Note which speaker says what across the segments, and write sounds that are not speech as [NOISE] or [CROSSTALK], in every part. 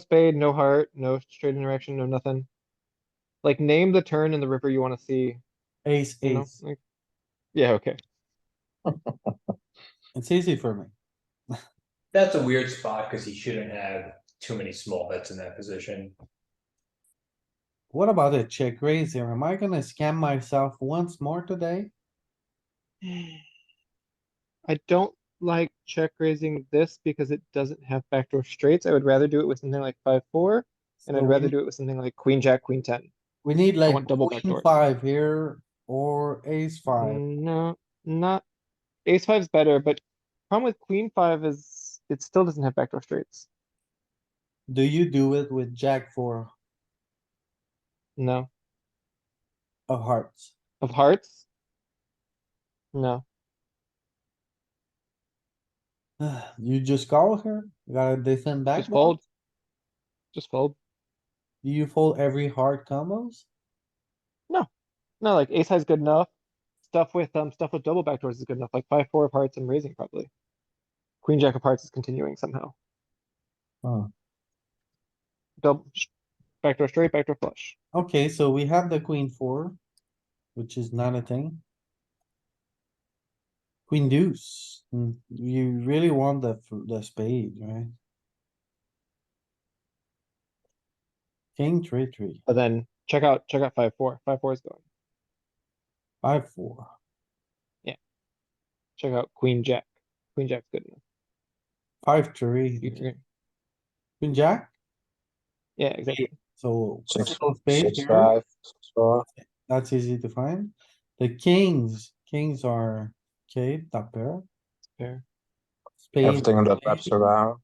Speaker 1: spade, no heart, no straight interaction, no nothing. Like, name the turn in the river you wanna see,
Speaker 2: ace,
Speaker 1: you know,
Speaker 2: ace.
Speaker 1: like, yeah, okay.
Speaker 2: It's easy for me.
Speaker 3: That's a weird spot because he shouldn't have too many small bets in that position.
Speaker 2: What about a check raise here? Am I gonna scam myself once more today?
Speaker 1: I don't like check raising this because it doesn't have backdoor straights. I would rather do it with something like five, four. And
Speaker 2: So
Speaker 1: I'd
Speaker 2: we
Speaker 1: rather
Speaker 2: need-
Speaker 1: do it with something like queen, jack, queen ten.
Speaker 2: We need like
Speaker 1: want double Mm.
Speaker 2: queen
Speaker 1: backdoor.
Speaker 2: five here or ace five.
Speaker 1: No, not, ace five's better, but problem with queen five is it still doesn't have backdoor straights.
Speaker 2: Do you do it with jack four
Speaker 1: No,
Speaker 2: of hearts? [SIGHS]
Speaker 1: of hearts? No,
Speaker 2: You just call here, you gotta defend back.
Speaker 1: just fold. Just fold.
Speaker 2: Do you fold every hard combos?
Speaker 1: No, like ace high's good enough. Stuff with, um, stuff with double backdoors is good enough, like five, four of hearts, I'm raising probably. Queen, jack of hearts is continuing somehow.
Speaker 2: Huh.
Speaker 1: Double, sh- backdoor straight, backdoor flush.
Speaker 2: Okay, so we have the queen four, which is not a thing. Queen deuce, Hmm, you really want the, f- the spade, right? King three, three,
Speaker 1: But then check out, check out five, four. Five, four is going.
Speaker 2: five, four.
Speaker 1: Check out queen, jack. Queen, jack's good enough.
Speaker 2: Five,
Speaker 1: You
Speaker 2: three,
Speaker 1: three.
Speaker 2: queen jack,
Speaker 1: Yeah, exactly.
Speaker 2: so.
Speaker 4: Six,
Speaker 2: couple spades
Speaker 4: six,
Speaker 2: here,
Speaker 4: five, six, four.
Speaker 2: That's easy to find. The kings, kings are, okay, top pair.
Speaker 1: Fair.
Speaker 2: Spade,
Speaker 4: Everything on that wraps
Speaker 2: spade.
Speaker 4: around.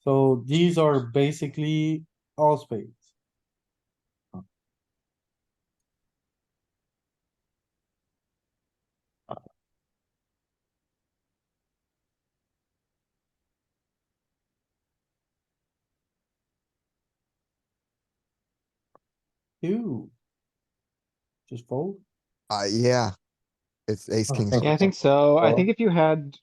Speaker 2: So these are basically all spades. Ew. Just fold.
Speaker 5: Uh, yeah. It's ace
Speaker 4: Oh,
Speaker 5: king.
Speaker 4: thank
Speaker 1: Yeah, I
Speaker 4: Okay.
Speaker 1: think so. I
Speaker 4: Well-
Speaker 1: think if you had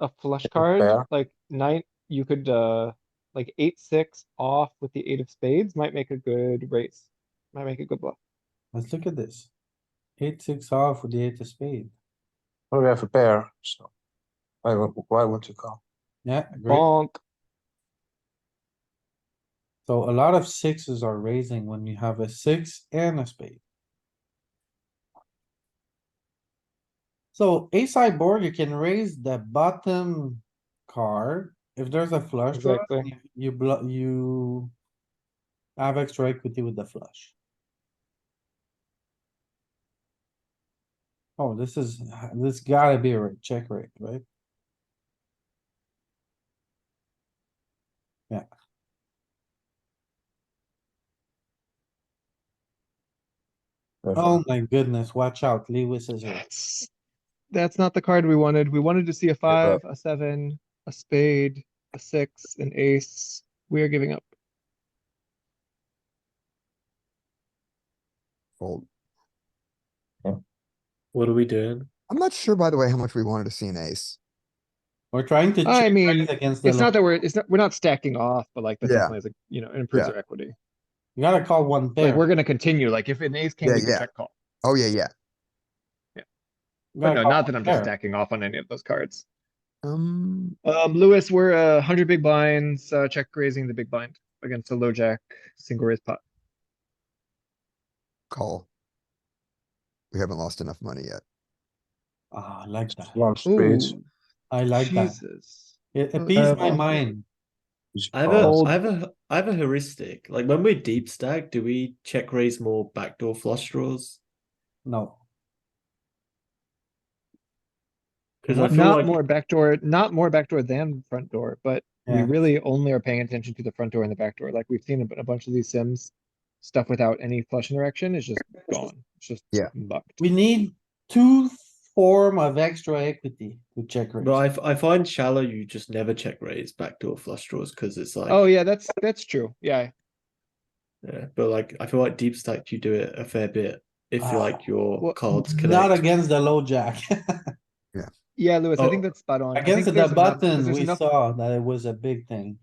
Speaker 1: a flush
Speaker 4: Think
Speaker 1: card,
Speaker 4: fair.
Speaker 1: like nine, you could, uh, like eight, six off with the eight of spades might make a good race. Might make a good bluff.
Speaker 2: Let's look at this. Eight, six off with the eight of spade.
Speaker 4: Well, we have a pair, so why, wo- why wouldn't you call?
Speaker 2: Yeah, great.
Speaker 1: Bonk.
Speaker 2: So a lot of sixes are raising when you have a six and a spade. So ace high board, you can raise the bottom card. If there's a flush draw,
Speaker 1: Exactly.
Speaker 2: you- you block, you have extra equity with the flush. Oh, this is, this gotta be a ra- check rate, right?
Speaker 4: There's a-
Speaker 2: Oh my goodness, watch out, Lewis is here.
Speaker 1: That's, that's not the card we wanted. We wanted to see a
Speaker 4: but-
Speaker 1: five, a seven, a spade, a six, an ace. We are giving up.
Speaker 5: Fold.
Speaker 6: What are we doing?
Speaker 5: I'm not sure, by the way, how much we wanted to see an ace.
Speaker 2: We're trying to.
Speaker 1: I
Speaker 2: check
Speaker 1: mean,
Speaker 2: raise against the
Speaker 1: It's not
Speaker 2: limit.
Speaker 1: that we're, it's not, we're not stacking off, but like, that
Speaker 5: Yeah.
Speaker 1: definitely is, a you know, it improves
Speaker 5: Yeah.
Speaker 1: our equity.
Speaker 2: You gotta call one pair.
Speaker 1: Like, we're gonna continue, like, if an ace came,
Speaker 5: Yeah,
Speaker 1: we can
Speaker 5: yeah.
Speaker 1: check call.
Speaker 5: Oh, yeah, yeah.
Speaker 2: You
Speaker 1: But
Speaker 2: gotta
Speaker 1: no,
Speaker 2: call
Speaker 1: not that
Speaker 2: one
Speaker 1: I'm just
Speaker 2: pair.
Speaker 1: stacking off on any of those cards.
Speaker 5: Um,
Speaker 1: Um, Lewis, we're a hundred big blinds, uh, check raising the big blind against a low jack, single raise pot.
Speaker 5: call. We haven't lost enough money yet.
Speaker 2: Ah, I like that.
Speaker 4: Long speeds.
Speaker 1: Ooh,
Speaker 2: I like that.
Speaker 1: Jesus.
Speaker 2: It
Speaker 1: Uh,
Speaker 2: appeased my
Speaker 6: uh,
Speaker 2: mind.
Speaker 4: It's
Speaker 6: I have
Speaker 4: called.
Speaker 6: a, I have a, I have a heuristic. Like when we're deep stack, do we check raise more backdoor flush draws?
Speaker 2: No,
Speaker 6: Because I
Speaker 1: Not-
Speaker 6: feel
Speaker 1: Not
Speaker 6: like
Speaker 1: more backdoor, not more backdoor than front door, but we
Speaker 2: Yeah.
Speaker 1: really only are paying attention to the front door and the back door. Like we've seen a, bu- a bunch of these sims, stuff without any flush interaction is just gone. It's just
Speaker 5: Yeah.
Speaker 1: bucked.
Speaker 2: we need two form of extra equity to check raise.
Speaker 6: But I, f- I find shallow you just never check raise backdoor flush draws because it's like
Speaker 1: Oh yeah, that's that's true. Yeah,
Speaker 6: yeah, but like I feel like deep stack you do it a fair bit if
Speaker 2: Ah,
Speaker 6: like your
Speaker 1: well,
Speaker 6: cards
Speaker 2: [LAUGHS]
Speaker 6: connect.
Speaker 2: Not against the low jack.
Speaker 1: Yeah, Lewis, I think
Speaker 6: Oh,
Speaker 1: that's spot on. I think
Speaker 2: Against the
Speaker 1: there's enough-
Speaker 2: button,
Speaker 1: there's
Speaker 2: we
Speaker 1: enough-
Speaker 2: saw that it was a big thing.